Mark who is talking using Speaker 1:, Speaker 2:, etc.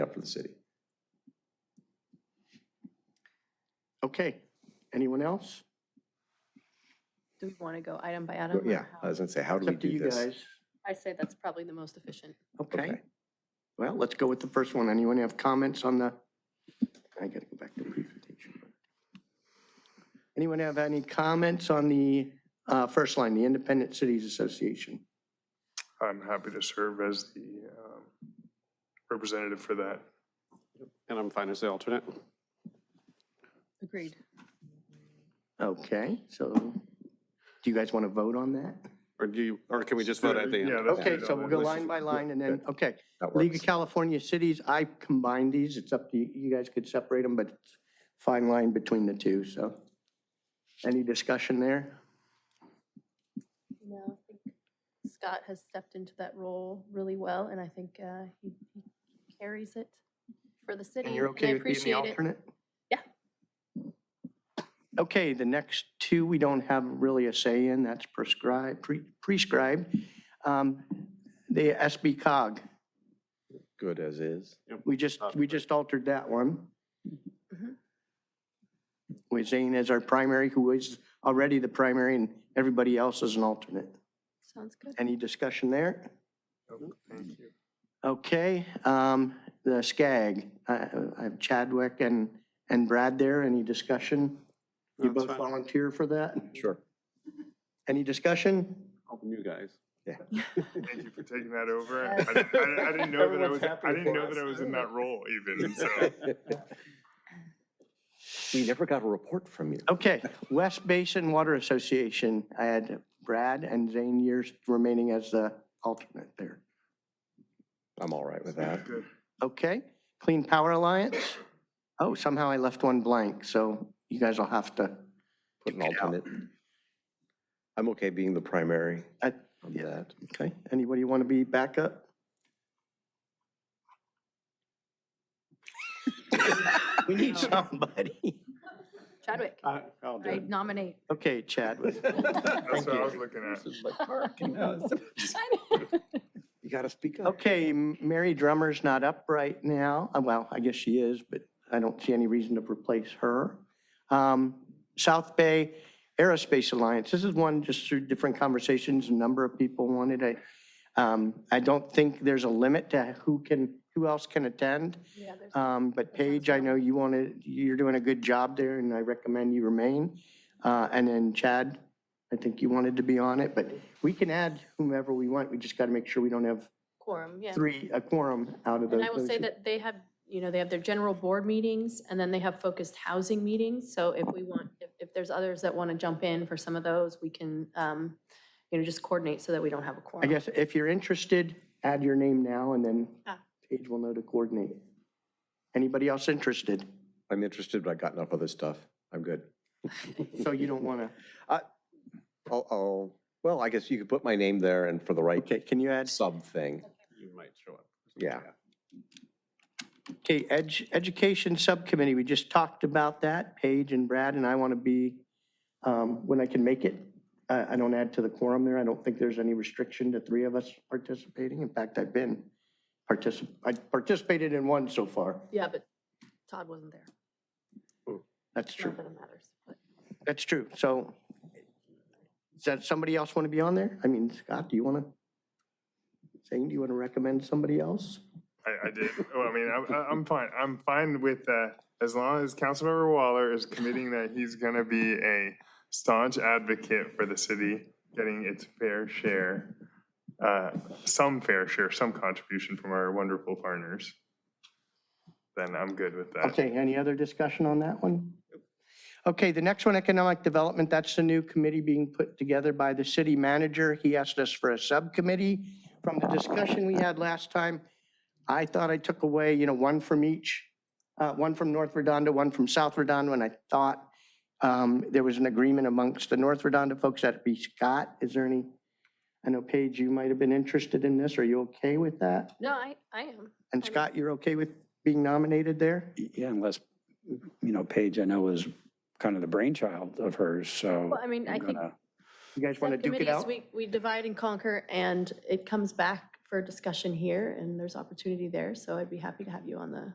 Speaker 1: except for the city.
Speaker 2: Okay, anyone else?
Speaker 3: Do we want to go item by item? or
Speaker 1: Yeah,
Speaker 3: how?
Speaker 1: I was gonna say, how do we
Speaker 2: It's up to
Speaker 1: do
Speaker 2: you
Speaker 1: this?
Speaker 2: guys.
Speaker 3: I say that's probably the most efficient.
Speaker 2: Okay,
Speaker 1: Okay.
Speaker 2: well, let's go with the first one. Anyone have comments on the? I gotta go back to the presentation. Anyone have any comments on the uh, first line, the Independent Cities Association?
Speaker 4: I'm happy to serve as the um, representative for that.
Speaker 5: And I'm fine as the alternate.
Speaker 3: Agreed.
Speaker 2: Okay, so do you guys want to vote on that?
Speaker 5: Or do you, or can we just vote at the
Speaker 4: Yeah,
Speaker 5: end?
Speaker 4: that's-
Speaker 2: Okay, so we'll go line by line and then, okay.
Speaker 1: That
Speaker 2: League of
Speaker 1: works.
Speaker 2: California Cities, I combined these. It's up to you. You guys could separate them, but it's fine line between the two, so. Any discussion there?
Speaker 3: No, I think Scott has stepped into that role really well, and I think uh, he he carries it for the city.
Speaker 2: And you're
Speaker 3: I
Speaker 2: okay with being the
Speaker 3: appreciate it.
Speaker 2: alternate?
Speaker 3: Yeah.
Speaker 2: Okay, the next two, we don't have really a say in, that's prescribed, pre- prescribed. Um, The SB cog,
Speaker 1: Good as is.
Speaker 2: we just, we just altered that one.
Speaker 3: Mhm.
Speaker 2: With Zane as our primary, who is already the primary, and everybody else is an alternate.
Speaker 3: Sounds good.
Speaker 2: Any discussion there?
Speaker 4: Nope, Oh, Thank you.
Speaker 5: Mm-hmm.
Speaker 2: Okay, um, the SCAG, I, I have Chadwick and, and Brad there, any discussion? You
Speaker 5: That's
Speaker 2: both
Speaker 5: fine.
Speaker 2: volunteer for that?
Speaker 1: Sure.
Speaker 2: Any discussion?
Speaker 5: You guys.
Speaker 4: Thank you for taking that over.
Speaker 3: Yes.
Speaker 4: I didn't- I I didn't know that I was,
Speaker 5: Everyone's happy
Speaker 4: I didn't
Speaker 5: for
Speaker 4: know
Speaker 5: us.
Speaker 4: that I was in that role even, so.
Speaker 1: We never got a report from you.
Speaker 2: Okay, West Basin Water Association, I had Brad and Zane Years remaining as the alternate there.
Speaker 1: I'm all right with that.
Speaker 4: Good.
Speaker 2: Okay, Clean Power Alliance? Oh, somehow I left one blank, so you guys will have to,
Speaker 1: Put an alternate. I'm okay being the primary
Speaker 2: I-
Speaker 1: on that.
Speaker 2: okay, anybody want to be backup? We need somebody.
Speaker 3: Chadwick,
Speaker 5: I- I'll do
Speaker 3: I
Speaker 5: it.
Speaker 3: nominate.
Speaker 2: Okay, Chadwick.
Speaker 4: That's what I was looking at.
Speaker 1: You gotta speak up.
Speaker 2: Okay, M- Mary Drummer's not up right now. Uh, Well, I guess she is, but I don't see any reason to replace her. Um, South Bay Aerospace Alliance, this is one just through different conversations, a number of people wanted it. Um, I don't think there's a limit to who can, who else can attend.
Speaker 3: Yeah, there's-
Speaker 2: Um, But Paige, I know you want to, you're doing a good job there, and I recommend you remain. Uh, And then Chad, I think you wanted to be on it, but we can add whomever we want. We just got to make sure we don't have
Speaker 3: Quorum, yeah.
Speaker 2: three, a quorum out of those.
Speaker 3: And I will say
Speaker 2: those-
Speaker 3: that they have, you know, they have their general board meetings, and then they have focused housing meetings. So if we want, if, if there's others that want to jump in for some of those, we can, um, you know, just coordinate so that we don't have a quorum.
Speaker 2: I guess if you're interested, add your name now and then
Speaker 3: Ah.
Speaker 2: Paige will know to coordinate. Anybody else interested?
Speaker 1: I'm interested, but I got enough other stuff. I'm good.
Speaker 2: So you don't want to,
Speaker 1: I'll, I'll, well, I guess you could put my name there and for the right
Speaker 2: okay, can you add,
Speaker 1: sub thing.
Speaker 5: You might show up.
Speaker 1: Yeah.
Speaker 2: okay, Edge, Education Subcommittee, we just talked about that, Paige and Brad, and I want to be, um, when I can make it. I, I don't add to the quorum there. I don't think there's any restriction to three of us participating. In fact, I've been particip, I participated in one so far.
Speaker 3: Yeah, but Todd wasn't there.
Speaker 2: That's true.
Speaker 3: Not that it matters, but.
Speaker 2: That's true. So does somebody else want to be on there? I mean, Scott, do you want to? Zane, do you want to recommend somebody else?
Speaker 4: I, I did. Well, I mean, I'm, I'm fine. I'm fine with that as long as Councilmember Waller is committing that he's going to be a staunch advocate for the city getting its fair share, uh, some fair share, some contribution from our wonderful partners. Then I'm good with that.
Speaker 2: Okay, any other discussion on that one? Okay, the next one, Economic Development, that's the new committee being put together by the city manager. He asked us for a subcommittee. From the discussion we had last time, I thought I took away, you know, one from each, uh, one from North Redondo, one from South Redondo, and I thought um, there was an agreement amongst the North Redondo folks, that'd be Scott. Is there any, I know Paige, you might have been interested in this. Are you okay with that?
Speaker 3: No, I, I am.
Speaker 2: And
Speaker 3: I mean-
Speaker 2: Scott, you're okay with being nominated there?
Speaker 6: Yeah, unless, you know, Paige, I know is kind of the brainchild of hers, so.
Speaker 3: Well, I mean, I
Speaker 6: I'm
Speaker 3: think
Speaker 6: gonna-
Speaker 2: You guys want to duke it out?
Speaker 3: subcommittees, We, we divide and conquer, and it comes back for discussion here, and there's opportunity there, so I'd be happy to have you on the